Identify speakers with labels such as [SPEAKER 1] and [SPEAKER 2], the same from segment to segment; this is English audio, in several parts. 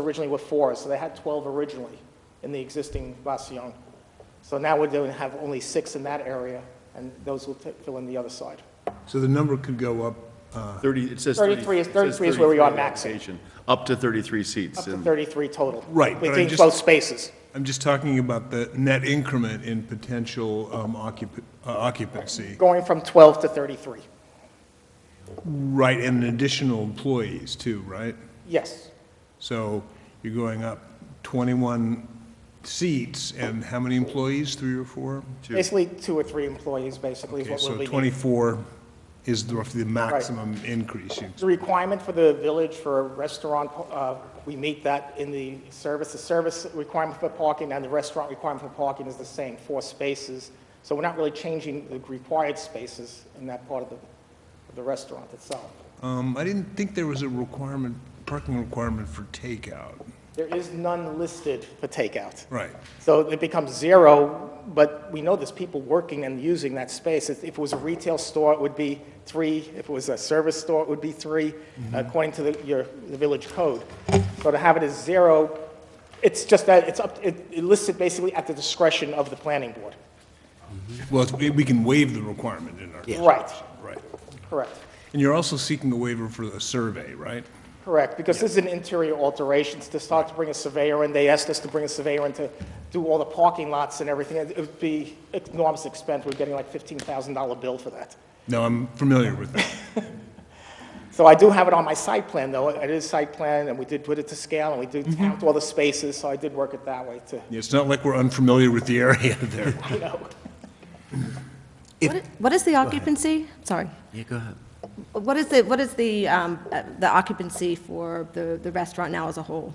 [SPEAKER 1] originally were four, so they had 12 originally in the existing Vacion. So now we're going to have only six in that area, and those will ta- fill in the other side.
[SPEAKER 2] So the number could go up, uh,
[SPEAKER 3] 30, it says
[SPEAKER 1] 33
[SPEAKER 3] 33.
[SPEAKER 1] is-
[SPEAKER 3] it says
[SPEAKER 1] 33 is where we are
[SPEAKER 3] 33
[SPEAKER 1] maxing.
[SPEAKER 3] allocation, Up to 33 seats.
[SPEAKER 1] Up to
[SPEAKER 3] and-
[SPEAKER 1] 33 total.
[SPEAKER 2] Right, but I
[SPEAKER 1] Within
[SPEAKER 2] just-
[SPEAKER 1] both spaces.
[SPEAKER 2] I'm just talking about the net increment in potential um, occup- uh, occupancy,
[SPEAKER 1] Going from 12 to 33.
[SPEAKER 2] right, and additional employees too, right?
[SPEAKER 1] Yes.
[SPEAKER 2] So you're going up 21 seats, and how many employees, three or four?
[SPEAKER 1] Basically, two or three employees, basically, is
[SPEAKER 2] Okay,
[SPEAKER 1] what
[SPEAKER 2] so
[SPEAKER 1] we'll be needing.
[SPEAKER 2] 24 is the- roughly the maximum increase. you-
[SPEAKER 1] The requirement for the village for a restaurant, uh, we meet that in the service. The service requirement for parking and the restaurant requirement for parking is the same, four spaces. So we're not really changing the required spaces in that part of the, of the restaurant itself.
[SPEAKER 2] Um, I didn't think there was a requirement, parking requirement for takeout.
[SPEAKER 1] There is none listed for takeout.
[SPEAKER 2] Right.
[SPEAKER 1] So it becomes zero, but we know there's people working and using that space. If if it was a retail store, it would be three. If it was a service store, it would be three, according to the, your, the village code. So to have it as zero, it's just that, it's up, it it lists it basically at the discretion of the planning board.
[SPEAKER 2] Well, it's- we can waive the requirement in our...
[SPEAKER 1] Right,
[SPEAKER 2] Right.
[SPEAKER 1] correct,
[SPEAKER 2] And you're also seeking a waiver for the survey, right?
[SPEAKER 1] correct, because this is an interior alterations, to start to bring a surveyor in, they asked us to bring a surveyor in to do all the parking lots and everything, it it would be enormous expense, we're getting like fifteen thousand dollar bill for that.
[SPEAKER 2] No, I'm familiar with that.
[SPEAKER 1] So I do have it on my site plan, though. It is site plan, and we did put it to scale, and we did
[SPEAKER 4] Mm-hmm.
[SPEAKER 1] count all the spaces, so I did work it that way, too.
[SPEAKER 2] It's not like we're unfamiliar with the area there.
[SPEAKER 1] You know,
[SPEAKER 4] What i- What is the occupancy? Sorry.
[SPEAKER 5] Yeah, go ahead.
[SPEAKER 4] What is the, what is the, um, uh, the occupancy for the, the restaurant now as a whole?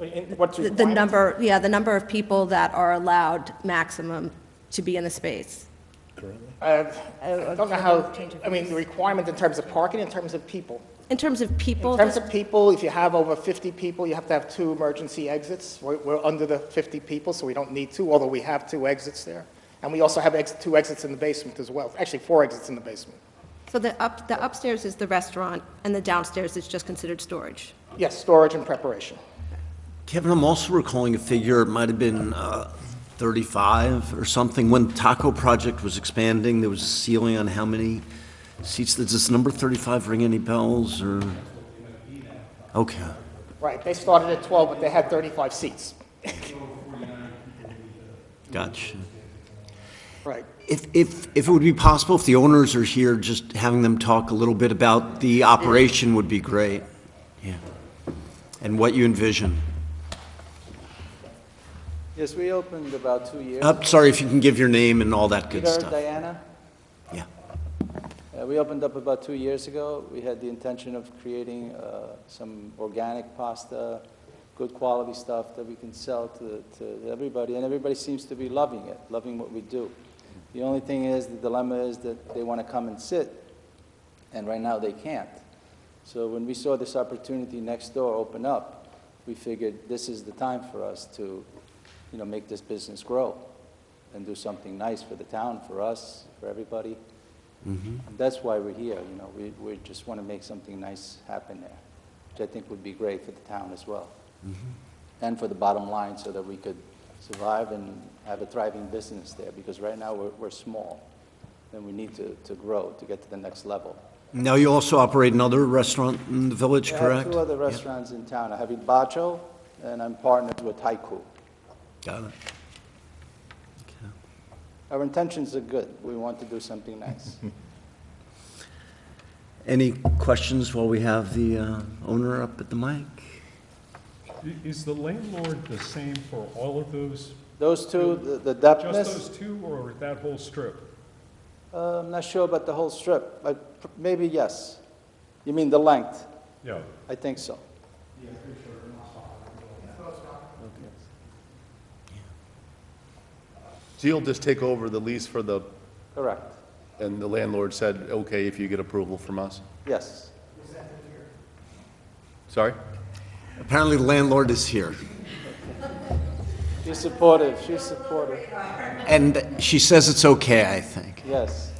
[SPEAKER 1] in- what's
[SPEAKER 4] The- The
[SPEAKER 1] required.
[SPEAKER 4] number, yeah, the number of people that are allowed maximum to be in the space?
[SPEAKER 1] Uh, I don't know how,
[SPEAKER 4] Change of
[SPEAKER 1] I mean, the requirement in terms of parking, in terms of people.
[SPEAKER 4] In terms of people?
[SPEAKER 1] In terms of people, if you have over 50 people, you have to have two emergency exits. We're, we're under the 50 people, so we don't need two, although we have two exits there. And we also have ex- two exits in the basement as well, actually, four exits in the basement.
[SPEAKER 4] So the up, the upstairs is the restaurant, and the downstairs is just considered storage?
[SPEAKER 1] Yes, storage and preparation.
[SPEAKER 5] Kevin, I'm also recalling a figure, it might have been uh, 35 or something. When Taco Project was expanding, there was a ceiling on how many seats. Does this number 35 ring any bells, or? Okay.
[SPEAKER 1] Right, they started at 12, but they had 35 seats.
[SPEAKER 5] Gotcha.
[SPEAKER 1] Right.
[SPEAKER 5] If, if, if it would be possible, if the owners are here, just having them talk a little bit about the operation would be great. Yeah. And what you envision.
[SPEAKER 6] Yes, we opened about two years.
[SPEAKER 5] Uh, Sorry if you can give your name and all that good
[SPEAKER 6] Peter,
[SPEAKER 5] stuff.
[SPEAKER 6] Diana,
[SPEAKER 5] Yeah.
[SPEAKER 6] Uh, we opened up about two years ago. We had the intention of creating uh, some organic pasta, good quality stuff that we can sell to, to everybody, and everybody seems to be loving it, loving what we do. The only thing is, the dilemma is that they want to come and sit, and right now they can't. So when we saw this opportunity next door open up, we figured this is the time for us to, you know, make this business grow and do something nice for the town, for us, for everybody. That's why we're here, you know, we, we just want to make something nice happen there, which I think would be great for the town as well. And for the bottom line, so that we could survive and have a thriving business there, because right now we're, we're small, and we need to, to grow to get to the next level.
[SPEAKER 5] Now you also operate another restaurant in the village,
[SPEAKER 6] I have
[SPEAKER 5] correct?
[SPEAKER 6] two other restaurants in town. I have Hibacho, and I'm partnered with Haiku.
[SPEAKER 5] Got it.
[SPEAKER 6] Our intentions are good. We want to do something nice.
[SPEAKER 5] Any questions while we have the uh, owner up at the mic?
[SPEAKER 7] I- Is the landlord the same for all of those,
[SPEAKER 6] Those two, the- the
[SPEAKER 7] just
[SPEAKER 6] depthness,
[SPEAKER 7] those two or that whole strip?
[SPEAKER 6] uh, I'm not sure about the whole strip, but pr- maybe yes. You mean the length?
[SPEAKER 7] Yeah,
[SPEAKER 6] I think so.
[SPEAKER 3] So you'll just take over the lease for the,
[SPEAKER 6] Correct.
[SPEAKER 3] and the landlord said, okay, if you get approval from us?
[SPEAKER 6] Yes.
[SPEAKER 3] Sorry?
[SPEAKER 5] Apparently the landlord is here.
[SPEAKER 6] She's supportive. She's supportive.
[SPEAKER 5] And she says it's okay, I think.
[SPEAKER 6] Yes.